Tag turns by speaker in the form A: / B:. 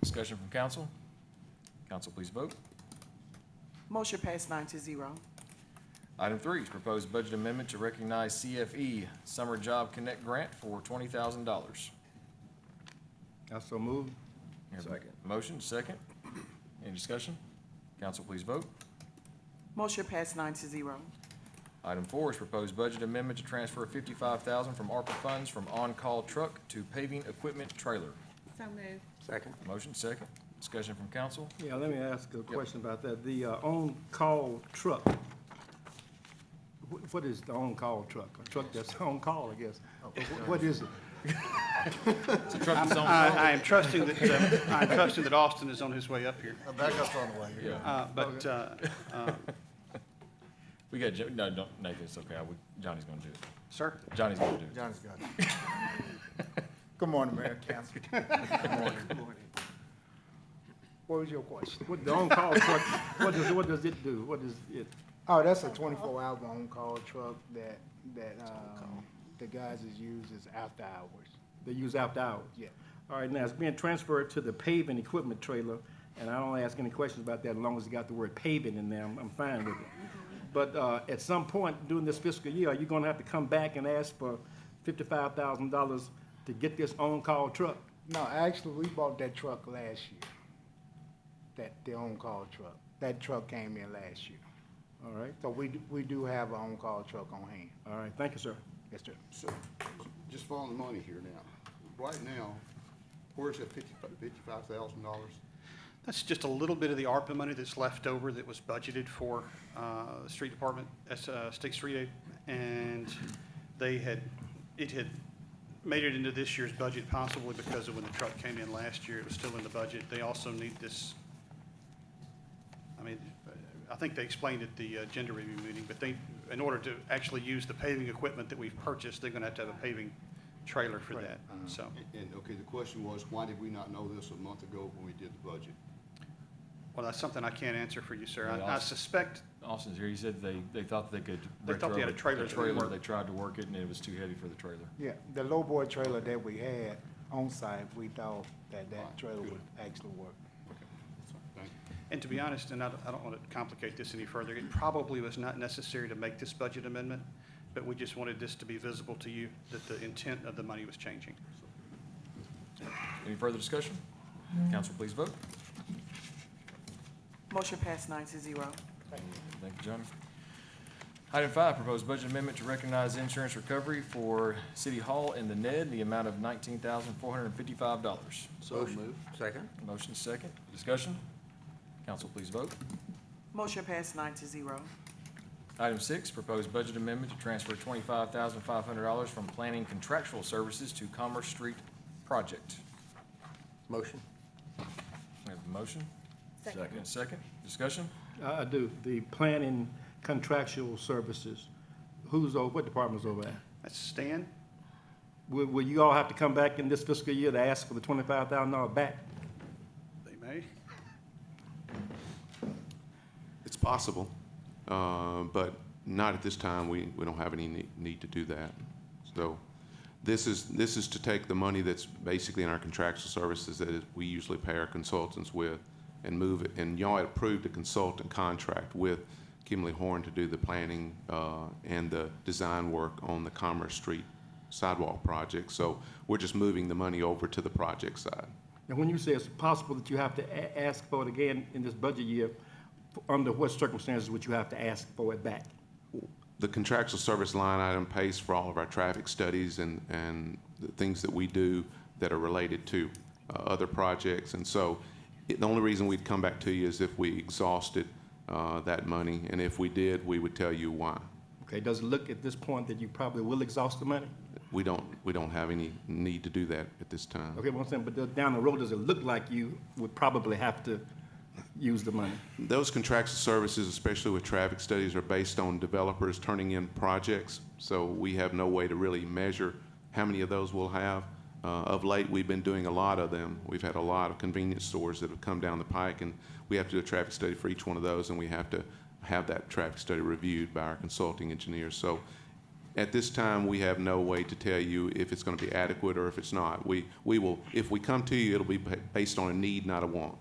A: Discussion from council? Council, please vote.
B: Motion passed nine to zero.
A: Item three is proposed budget amendment to recognize CFE Summer Job Connect Grant for twenty thousand dollars.
C: I so move. Second.
A: Motion, second. Any discussion? Council, please vote.
B: Motion passed nine to zero.
A: Item four is proposed budget amendment to transfer fifty-five thousand from ARPA funds from on-call truck to paving equipment trailer.
D: So moved.
C: Second.
A: Motion, second. Discussion from council?
C: Yeah, let me ask a question about that. The uh, on-call truck. Wh- What is the on-call truck? A truck that's on call, I guess. Wh- What is it?
A: It's a truck that's on,
E: I, I am trusting that, uh, I'm trusting that Austin is on his way up here,
F: Backup's on the way.
A: yeah.
E: uh, but, uh, uh,
A: We got, Jo- no, don't, Nathan, it's okay. I would- Johnny's gonna do it.
E: sir,
A: Johnny's gonna do it.
F: Johnny's got it. Good morning, Mayor and Council.
E: what was your question?
C: What the on-call truck, what does, what does it do? What is it?
F: Oh, that's a twenty-four hour on-call truck that, that, um, the guys is used is after hours.
C: They use after hours?
F: Yeah.
C: All right, now it's being transferred to the paving equipment trailer, and I don't ask any questions about that as long as it got the word paving in there, I'm, I'm fine with it. But, uh, at some point during this fiscal year, you're gonna have to come back and ask for fifty-five thousand dollars to get this on-call truck.
F: No, actually, we bought that truck last year. That, the on-call truck. That truck came in last year.
C: All right,
F: So we, do- we do have an on-call truck on hand.
C: all right, thank you, sir.
F: Yes, sir.
G: So, just following the money here now. Right now, where's that fifty-five, fifty-five thousand dollars?
E: That's just a little bit of the ARPA money that's left over that was budgeted for uh, the street department, that's, uh, State Street Aid. And they had, it had made it into this year's budget possibly because of when the truck came in last year, it was still in the budget. They also need this, I mean, I think they explained at the uh, gender review meeting, but they, in order to actually use the paving equipment that we've purchased, they're going to have to have a paving trailer for that, so.
G: And, okay, the question was, why did we not know this a month ago when we did the budget?
E: Well, that's something I can't answer for you, sir. I-
A: Yeah, I'll-
E: I suspect
A: Austin's here. He said they, they thought they could.
E: They thought they had a
A: retro- the
E: trailer that would work.
A: They tried to work it and it was too heavy for the trailer.
F: Yeah, the lowboy trailer that we had on site, we thought that that trailer would actually work.
G: Thank you.
E: And to be honest, and I don't, I don't want to complicate this any further, it probably was not necessary to make this budget amendment, but we just wanted this to be visible to you, that the intent of the money was changing.
A: Any further discussion? Council, please vote.
B: Motion passed nine to zero.
A: Thank you, Johnny. Item five, proposed budget amendment to recognize insurance recovery for City Hall and the NED in the amount of nineteen thousand four hundred and fifty-five dollars.
G: So moved.
H: Second?
A: Motion second. Discussion? Council, please vote.
B: Motion passed nine to zero.
A: Item six, proposed budget amendment to transfer twenty-five thousand five hundred dollars from planning contractual services to Commerce Street project.
H: Motion?
A: We have a motion?
D: Second.
A: And a Second. Discussion?
C: I, I do, the planning contractual services, who's over, what department's over that?
E: That's Stan?
C: Will, will you all have to come back in this fiscal year to ask for the twenty-five thousand dollar back?
E: They may.
I: It's possible, uh, but not at this time. We, we don't have any ne- need to do that. So this is, this is to take the money that's basically in our contractual services that is- we usually pay our consultants with and move it. And y'all had approved a consultant contract with Kimley Horn to do the planning uh, and the design work on the Commerce Street sidewalk project. So we're just moving the money over to the project side.
C: And when you say it's possible that you have to a- ask for it again in this budget year, f- under what circumstances would you have to ask for it back?
I: the contractual service line item pays for all of our traffic studies and, and the things that we do that are related to uh, other projects. And so it, the only reason we'd come back to you is if we exhausted uh, that money. And if we did, we would tell you why.
C: Okay, does it look at this point that you probably will exhaust the money?
I: We don't, we don't have any need to do that at this time.
C: Okay, what I'm saying, but does- down the road, does it look like you would probably have to use the money?
I: Those contractual services, especially with traffic studies, are based on developers turning in projects. So we have no way to really measure how many of those we'll have. Uh, of late, we've been doing a lot of them. We've had a lot of convenience stores that have come down the pike, and we have to do a traffic study for each one of those, and we have to have that traffic study reviewed by our consulting engineers. So At this time, we have no way to tell you if it's going to be adequate or if it's not. We, we will, if we come to you, it'll be ba- based on a need, not a want.